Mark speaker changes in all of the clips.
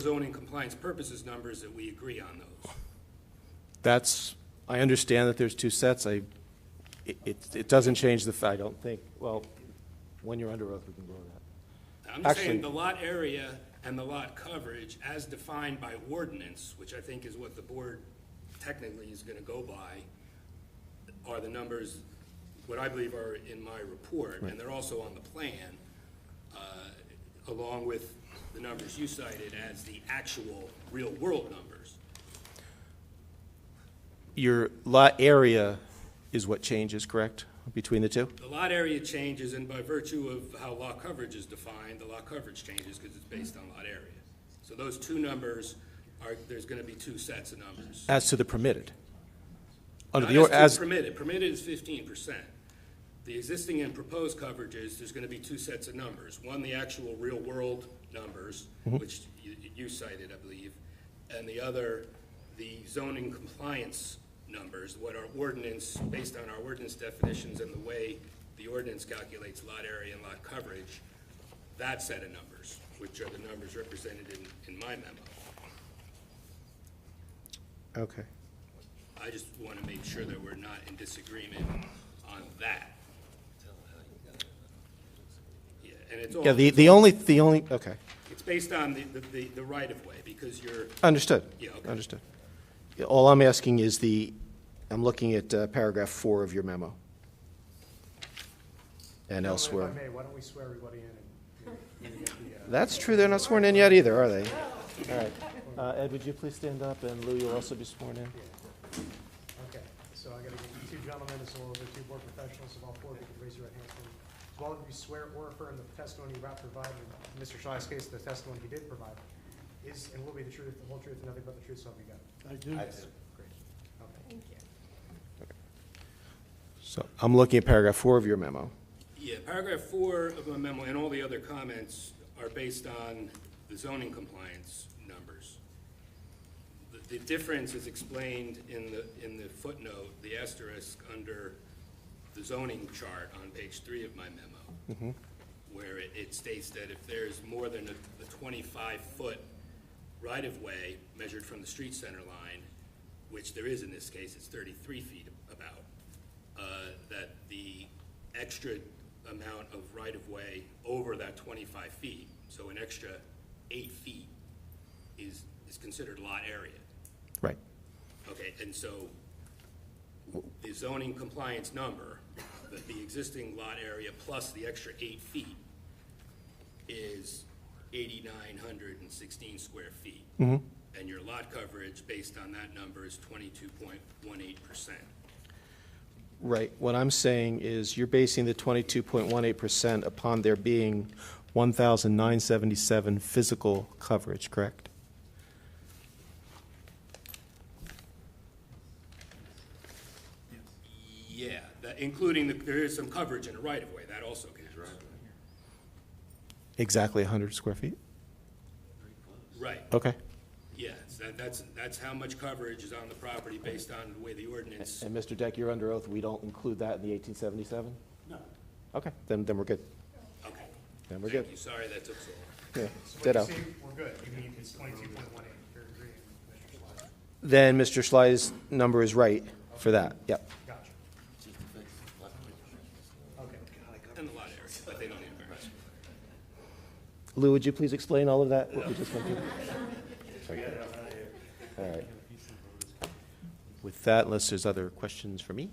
Speaker 1: zoning compliance purposes numbers that we agree on those.
Speaker 2: That's, I understand that there's two sets. I, it, it- it doesn't change the, f- I don't think, well, when you're under oath, we can go over that.
Speaker 1: I'm just saying
Speaker 2: Actually-
Speaker 1: the lot area and the lot coverage as defined by ordinance, which I think is what the board technically is gonna go by, are the numbers, what I believe are in my report, and they're also on the plan, uh, along with the numbers you cited as the actual real-world numbers.
Speaker 2: Your lot area is what changes, correct, between the two?
Speaker 1: The lot area changes, and by virtue of how lot coverage is defined, the lot coverage changes because it's based on lot area. So those two numbers are, there's gonna be two sets of numbers.
Speaker 2: As to the permitted? Under
Speaker 1: Not
Speaker 2: the, or-
Speaker 1: as to
Speaker 2: as,
Speaker 1: permitted, permitted is fifteen percent. The existing and proposed coverages, there's gonna be two sets of numbers. One, the actual real-world numbers,
Speaker 2: Mm-hmm.
Speaker 1: which you, you cited, I believe, and the other, the zoning compliance numbers, what our ordinance, based on our ordinance definitions and the way the ordinance calculates lot area and lot coverage, that set of numbers, which are the numbers represented in, in my memo.
Speaker 2: okay.
Speaker 1: I just wanna make sure that we're not in disagreement on that. Yeah, and it's all,
Speaker 2: Yeah, the, the only, the only, okay,
Speaker 1: it's based on the, the- the, the right-of-way, because you're,
Speaker 2: understood.
Speaker 1: Yeah, okay.
Speaker 2: Understood. Yeah, All I'm asking is the, I'm looking at uh, paragraph four of your memo. And elsewhere.
Speaker 3: If I may, why don't we swear everybody in and maybe maybe get the, uh,
Speaker 2: That's true, they're not sworn in yet either, are they? All right. Uh, Ed, would you please stand up, and Lou, you'll also be sworn in?
Speaker 3: okay. So I gotta get you two gentlemen, as well as the two board professionals, if all four of you could raise your right hand. please. Do all of you swear or affirm the testimony you about to provide, in Mr. Shy's case, the testimony he did provide, is and will be the truth, the whole truth, and nothing but the truth, so help you God? I do. Great, okay.
Speaker 2: So I'm looking at paragraph four of your memo.
Speaker 1: yeah, paragraph four of my memo and all the other comments are based on the zoning compliance numbers. The- The difference is explained in the, in the footnote, the asterisk under the zoning chart on page three of my memo, where it- it states that if there's more than a twenty-five foot right-of-way measured from the street center line, which there is in this case, it's thirty-three feet about, uh, that the extra amount of right-of-way over that twenty-five feet, so an extra eight feet, is, is considered lot area.
Speaker 2: Right.
Speaker 1: Okay, and so the zoning compliance number, the, the existing lot area plus the extra eight feet is eighty-nine hundred and sixteen square feet.
Speaker 2: Mm-hmm.
Speaker 1: And your lot coverage based on that number is twenty-two point one eight percent.
Speaker 2: Right. What I'm saying is you're basing the 22.18% upon there being 1,977 physical coverage, correct?
Speaker 1: Yeah, that, including the, there is some coverage in a right-of-way, that also counts.
Speaker 2: Exactly 100 square feet?
Speaker 1: Right,
Speaker 2: Okay.
Speaker 1: yes, that, that's, that's how much coverage is on the property based on the way the ordinance,
Speaker 2: And Mr. Deck, you're under oath, we don't include that in the 1877? No. Okay, then, then we're good.
Speaker 1: okay.
Speaker 2: Then we're good.
Speaker 1: Thank you, sorry that took so long.
Speaker 2: Yeah,
Speaker 3: So when
Speaker 2: Ditto.
Speaker 3: you say we're good, you mean it's twenty-two point one eight, you're agreeing with Mr. Schley.
Speaker 2: Then Mr. Schley's number is right for that, yep.
Speaker 3: Gotcha. Okay.
Speaker 1: And a lot of areas, but they don't need a variance.
Speaker 2: Lou, would you please explain all of that? what we just went through? All right. With that, unless there's other questions for me?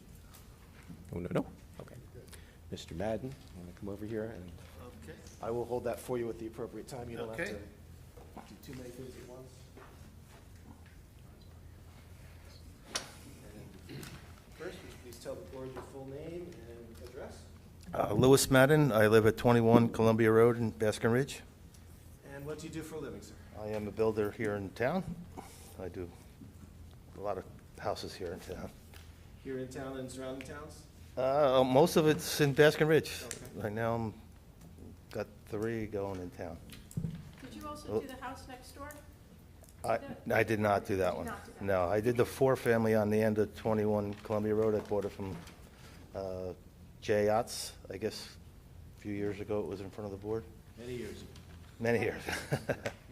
Speaker 2: Oh, no, no? Okay. Mr. Madden, you want to come over here? and
Speaker 4: Okay,
Speaker 2: I will hold that for you at the appropriate time. You don't have to
Speaker 4: Okay.
Speaker 2: do too many things at once. And First, would you please tell the board your full name and address?
Speaker 4: Uh, Louis Madden, I live at 21 Columbia Road in Baskin Ridge.
Speaker 2: And what do you do for a living, sir?
Speaker 4: I am a builder here in town. I do a lot of houses here in town.
Speaker 2: Here in town and surrounding towns?
Speaker 4: Uh, Most of it's in Baskin Ridge.
Speaker 2: Okay.
Speaker 4: Right now, I'm, got three going in town.
Speaker 5: Did you
Speaker 4: Oh.
Speaker 5: also do the house next door?
Speaker 4: I, I did not do that
Speaker 5: Did
Speaker 4: one.
Speaker 5: not do that.
Speaker 4: No, I did the four-family on the end of 21 Columbia Road. I bought it from uh, Jay Otz, I guess, a few years ago. It was in front of the board.
Speaker 2: Many years ago.
Speaker 4: Many years.